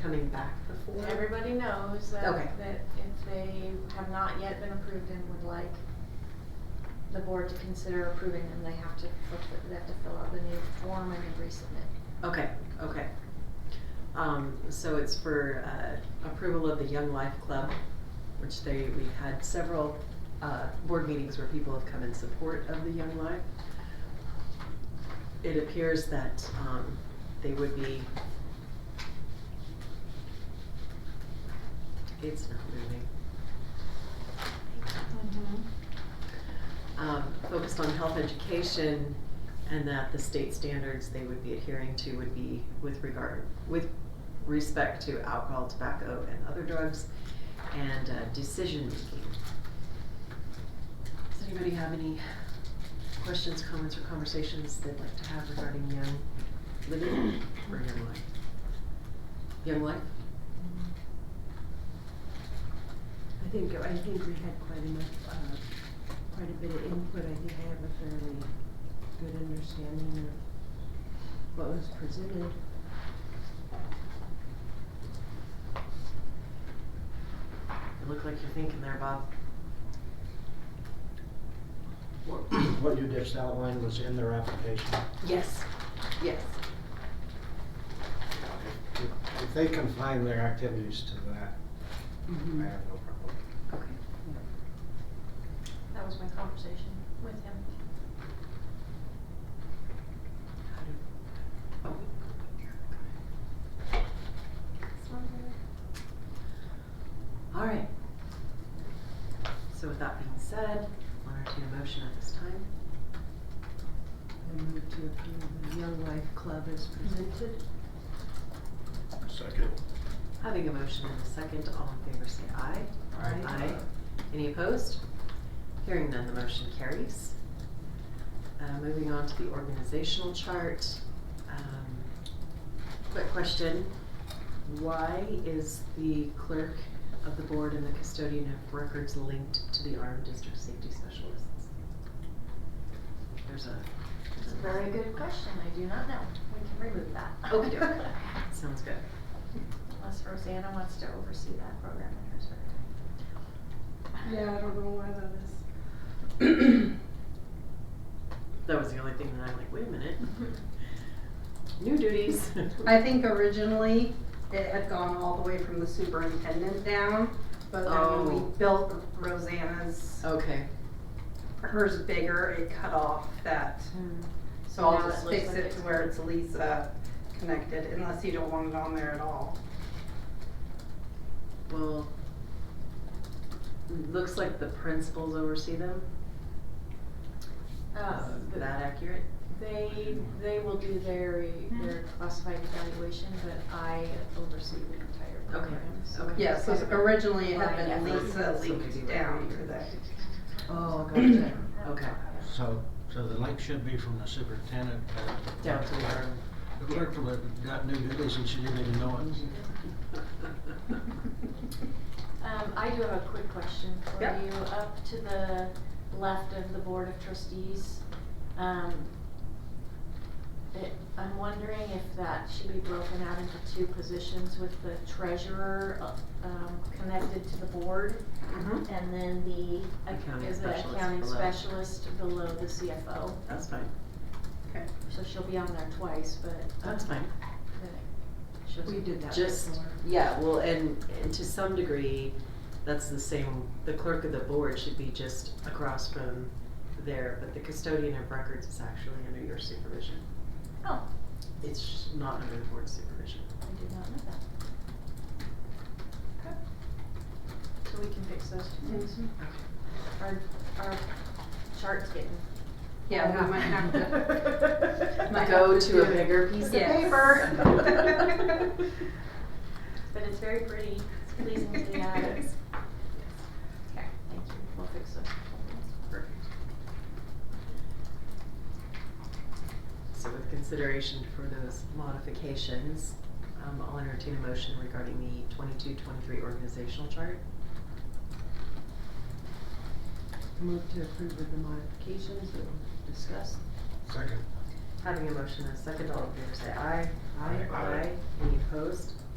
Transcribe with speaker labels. Speaker 1: coming back before?
Speaker 2: Everybody knows that,
Speaker 1: Okay.
Speaker 2: that if they have not yet been approved and would like the board to consider approving them, they have to, fulfill- they have to fill out the new form and then resubmit.
Speaker 1: Okay, okay. Um, so it's for, uh, approval of the Young Life Club, which they, we've had several, uh, board meetings where people have come in support of the Young Life. It appears that, um, they would be. It's not moving.
Speaker 3: Mm-hmm.
Speaker 1: um, focused on health education and that the state standards they would be adhering to would be with regard, with respect to alcohol, tobacco, and other drugs and uh, decision making. Does anybody have any questions, comments, or conversations they'd like to have regarding young living or young life? Young life?
Speaker 3: I think, I think we had quite enough, uh, quite a bit of input, I think I have a fairly good understanding of what was presented.
Speaker 1: You look like you're thinking there, Bob.
Speaker 4: What what you just outlined was in their application.
Speaker 1: Yes. Yes.
Speaker 4: If- If they confine their activities to that, I have no problem.
Speaker 1: Mm-hmm. Okay.
Speaker 2: That was my conversation with him.
Speaker 1: How do- oh. All right. So with that being said, I'll entertain a motion at this time.
Speaker 3: I move to approve the Young Life Club as presented.
Speaker 5: Second.
Speaker 1: Having a motion and a second, all in favor say aye.
Speaker 3: Aye.
Speaker 1: Any opposed? Hearing none, the motion carries. Uh, moving on to the organizational chart. Um, Quick question, why is the clerk of the board and the custodian of records linked to the armed district safety specialists? There's a.
Speaker 2: It's a very good question, I do not know, we can remove that.
Speaker 1: Okey-doke. Sounds good.
Speaker 2: Unless Rosanna wants to oversee that program in her circle.
Speaker 3: Yeah, I don't know why that is.
Speaker 1: That was the only thing that I'm like, wait a minute. New duties.
Speaker 6: I think originally it had gone all the way from the superintendent down, but then when
Speaker 1: Oh.
Speaker 6: we built Rosanna's,
Speaker 1: Okay,
Speaker 6: hers bigger, it cut off that.
Speaker 2: Um,
Speaker 6: So
Speaker 2: Now
Speaker 6: I'll just
Speaker 2: it looks
Speaker 6: fix
Speaker 2: like
Speaker 6: it
Speaker 2: it's-
Speaker 6: to where it's Lisa connected, unless you don't want it on there at all.
Speaker 1: well, looks like the principals oversee them.
Speaker 2: Uh,
Speaker 1: Is
Speaker 2: the-
Speaker 1: that accurate?
Speaker 2: They, they will do their, their classified evaluation, but I oversee the entire
Speaker 1: Okay,
Speaker 2: program, so.
Speaker 1: okay.
Speaker 6: Yeah, so originally it had
Speaker 2: Right,
Speaker 6: been
Speaker 2: yeah.
Speaker 6: Lisa
Speaker 1: So maybe
Speaker 6: linked
Speaker 1: we're
Speaker 6: down to
Speaker 1: here.
Speaker 6: the.
Speaker 1: Oh, gotcha. Okay,
Speaker 4: So, so the link should be from the superintendent. but-
Speaker 1: down to where.
Speaker 4: The clerk of it got new duties and she didn't even know it.
Speaker 2: Um, I do have a quick question for
Speaker 6: Yep.
Speaker 2: you. Up to the left of the Board of Trustees, um, it, I'm wondering if that should be broken out into two positions with the treasurer, uh, um, connected to the board,
Speaker 1: Mhm.
Speaker 2: and then the,
Speaker 1: Accounting
Speaker 2: is the
Speaker 1: specialist
Speaker 2: accounting
Speaker 1: below.
Speaker 2: specialist below the CFO.
Speaker 1: That's fine,
Speaker 2: So she'll be on there twice, but.
Speaker 1: that's fine.
Speaker 2: but she'll-
Speaker 3: We did that
Speaker 1: Just-
Speaker 3: before.
Speaker 1: Yeah, well, and, and to some degree, that's the same, the clerk of the board should be just across from there, but the custodian of records is actually under your supervision.
Speaker 2: Oh,
Speaker 1: It's not under the board's supervision.
Speaker 2: I did not know that. Okay. So we can fix those two things. Our, our chart's getting.
Speaker 6: Yeah, we might have to. might have
Speaker 1: Go to a
Speaker 6: do-
Speaker 1: bigger piece of
Speaker 6: Yes.
Speaker 1: paper.
Speaker 2: But it's very pretty, it's pleasing to the eye. Okay, thank you, we'll fix those.
Speaker 1: Perfect. So with consideration for those modifications, um, I'll entertain a motion regarding the 22-23 organizational chart.
Speaker 3: Move to approve with the modifications that were discussed.
Speaker 4: Second.
Speaker 1: Having a motion and a second, all in favor say aye.
Speaker 3: Aye.
Speaker 1: Aye. Any opposed?